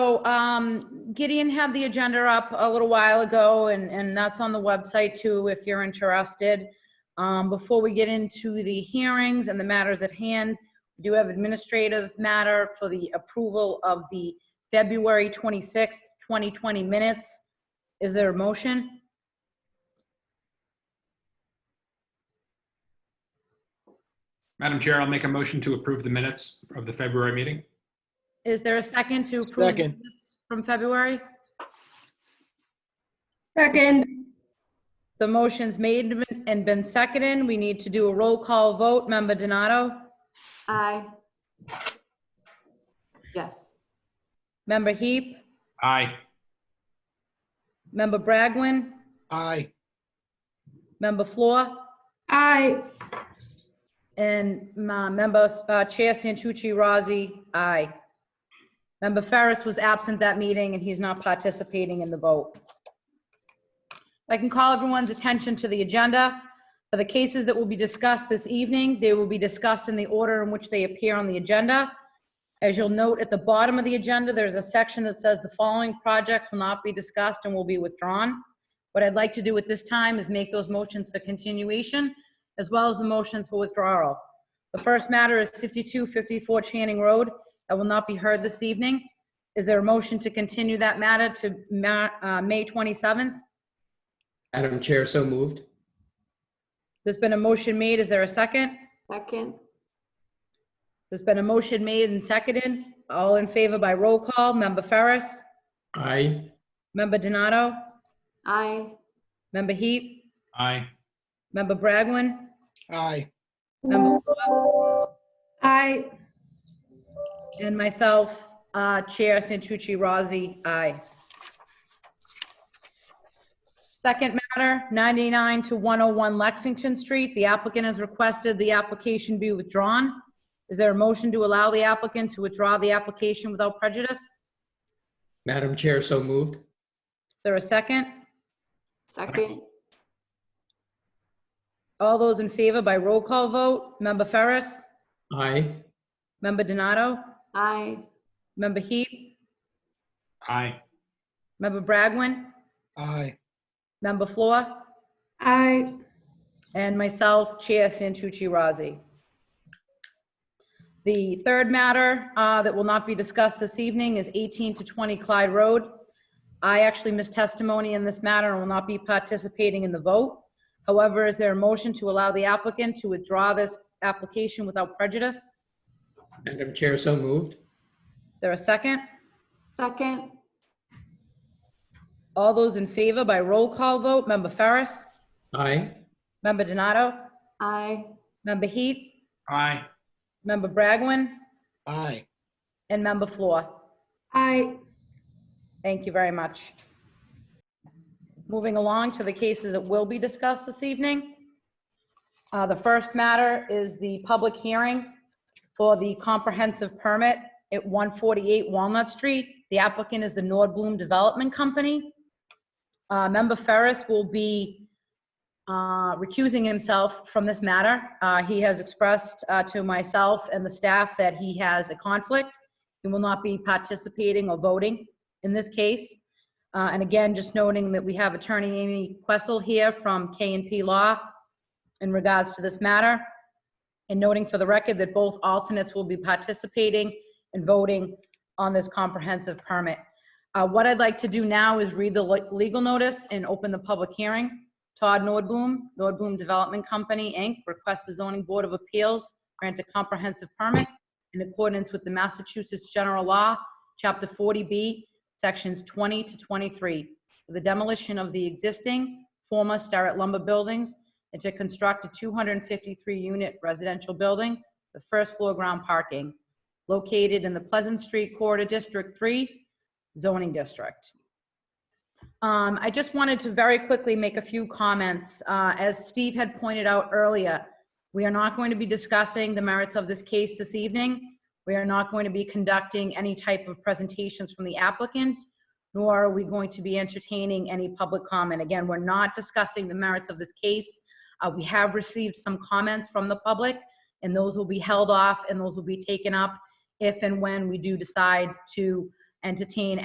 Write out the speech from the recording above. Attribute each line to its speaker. Speaker 1: So um, Gideon had the agenda up a little while ago, and, and that's on the website too, if you're interested. Um, Before we get into the hearings and the matters at hand, we do have administrative matter for the approval of the February 26th, 2020 minutes. Is there a motion?
Speaker 2: Madam Chair, I'll make a motion to approve the minutes of the February meeting.
Speaker 1: Is there a second to approve? the
Speaker 3: Second.
Speaker 1: minutes From February?
Speaker 4: Second,
Speaker 1: The motion's made and been seconded. We need to do a roll call vote. Member Donato?
Speaker 5: Aye. Yes.
Speaker 1: Member Heap?
Speaker 2: Aye.
Speaker 1: Member Bragwin?
Speaker 3: Aye.
Speaker 1: Member Floor?
Speaker 4: aye.
Speaker 1: And my member, uh, Chair Santucci Razi, aye. Member Ferris was absent that meeting and he's not participating in the vote. I can call everyone's attention to the agenda. For the cases that will be discussed this evening, they will be discussed in the order in which they appear on the agenda. As you'll note, at the bottom of the agenda, there's a section that says the following projects will not be discussed and will be withdrawn. What I'd like to do at this time is make those motions for continuation as well as the motions for withdrawal. The first matter is 5254 Channing Road that will not be heard this evening. Is there a motion to continue that matter to Ma- uh, May 27th?
Speaker 6: Madam Chair, so moved.
Speaker 1: There's been a motion made. Is there a second?
Speaker 5: Second,
Speaker 1: There's been a motion made and seconded. All in favor by roll call. Member Ferris?
Speaker 6: Aye.
Speaker 1: Member Donato?
Speaker 5: aye.
Speaker 1: Member Heap?
Speaker 2: Aye.
Speaker 1: Member Bragwin?
Speaker 3: Aye.
Speaker 1: Member
Speaker 4: Aye.
Speaker 1: And myself, uh, Chair Santucci Rozzi, aye. Second matter, 99 to 101 Lexington Street. The applicant has requested the application be withdrawn. Is there a motion to allow the applicant to withdraw the application without prejudice? Is
Speaker 6: Madam Chair, so moved.
Speaker 1: there a second?
Speaker 5: Second,
Speaker 1: All those in favor by roll call vote. Member Ferris?
Speaker 6: Aye.
Speaker 1: Member Donato?
Speaker 5: aye.
Speaker 1: Member Heap?
Speaker 2: Aye.
Speaker 1: Member Bragwin?
Speaker 3: Aye.
Speaker 1: Member Floor?
Speaker 4: Aye.
Speaker 1: And myself, Chair Santucci Razi. The third matter uh, that will not be discussed this evening is 18 to 20 Clyde Road. I actually missed testimony in this matter and will not be participating in the vote. However, is there a motion to allow the applicant to withdraw this application without prejudice? Is
Speaker 6: Madam Chair, so moved.
Speaker 1: There a second?
Speaker 5: Second,
Speaker 1: All those in favor by roll call vote, Member Ferris,
Speaker 6: Aye.
Speaker 1: Member Donato,
Speaker 5: aye.
Speaker 1: Member Heat,
Speaker 2: Aye.
Speaker 1: Member Bragwin,
Speaker 3: Aye.
Speaker 1: and Member Floor.
Speaker 4: Aye.
Speaker 1: Thank you very much. Moving along to the cases that will be discussed this evening. Uh, The first matter is the public hearing for the comprehensive permit at 148 Walnut Street. The applicant is the Nordblum Development Company. Uh, Member Ferris will be uh, recusing himself from this matter. Uh, He has expressed uh, to myself and the staff that he has a conflict. He will not be participating or voting in this case. Uh, And again, just noting that we have Attorney Amy Questle here from k and P Law in regards to this matter, and noting for the record that both alternates will be participating and voting on this comprehensive permit. Uh, What I'd like to do now is read the le- legal notice and open the public hearing. Todd Nordboom, Nordboom Development Company, Inc., requests the zoning board of appeals grant a comprehensive permit in accordance with the Massachusetts General Law, Chapter 40B, Sections 20 to 23, for the demolition of the existing former Starrett lumber buildings and to construct a 253-unit residential building with first-floor ground parking located in the Pleasant Street Corridor District 3 zoning district. Um, I just wanted to very quickly make a few comments. Uh, As Steve had pointed out earlier, we are not going to be discussing the merits of this case this evening. We are not going to be conducting any type of presentations from the applicant, nor are we going to be entertaining any public comment. Again, we're not discussing the merits of this case. Uh, We have received some comments from the public, and those will be held off, and those will be taken up if and when we do decide to entertain